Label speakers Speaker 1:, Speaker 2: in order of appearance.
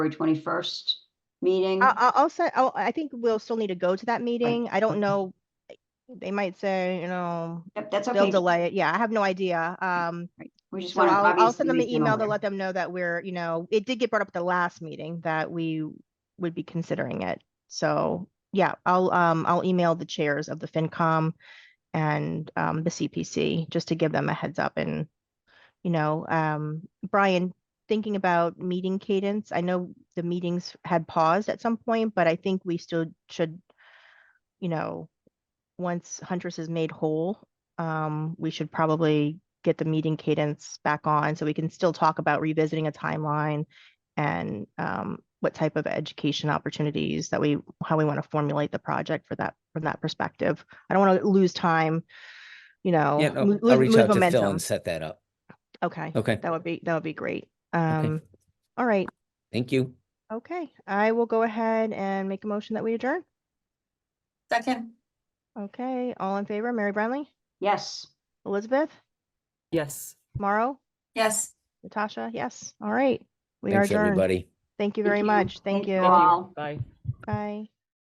Speaker 1: twenty-first meeting.
Speaker 2: I- I- I'll say, I'll- I think we'll still need to go to that meeting. I don't know. They might say, you know,
Speaker 1: Yep, that's
Speaker 2: they'll
Speaker 1: okay.
Speaker 2: delay it. Yeah, I have no idea. Um,
Speaker 1: We just
Speaker 2: so
Speaker 1: want to
Speaker 2: I'll,
Speaker 1: obviously.
Speaker 2: I'll send them an
Speaker 1: make them
Speaker 2: email to
Speaker 1: aware.
Speaker 2: let them know that we're, you know, it did get brought up at the last meeting that we would be considering it. So, yeah, I'll, um, I'll email the chairs of the FinCom and, um, the CPC just to give them a heads up and, you know, um, Brian, thinking about meeting cadence, I know the meetings had paused at some point, but I think we still should, you know, once Huntress is made whole, um, we should probably get the meeting cadence back on so we can still talk about revisiting a timeline and um, what type of education opportunities that we how we want to formulate the project for that from that perspective. I don't want to lose time, you know,
Speaker 3: Yeah, no,
Speaker 2: lo-
Speaker 3: I'll
Speaker 2: lose-
Speaker 3: reach
Speaker 2: lose
Speaker 3: out to Phil
Speaker 2: momentum.
Speaker 3: and set that up.
Speaker 2: Okay,
Speaker 3: Okay,
Speaker 2: that would be that would be great. Um, all right,
Speaker 3: thank you.
Speaker 2: okay, I will go ahead and make a motion that we adjourn.
Speaker 4: Second,
Speaker 2: Okay, all in favor, Mary Brownlee,
Speaker 1: Yes.
Speaker 2: Elizabeth,
Speaker 5: Yes.
Speaker 2: Morrow,
Speaker 4: yes.
Speaker 2: Natasha, yes, all right. We are
Speaker 3: Thanks,
Speaker 2: adjourned.
Speaker 3: everybody.
Speaker 2: Thank you very much. Thank you.
Speaker 1: Wow.
Speaker 5: Bye.
Speaker 2: Bye.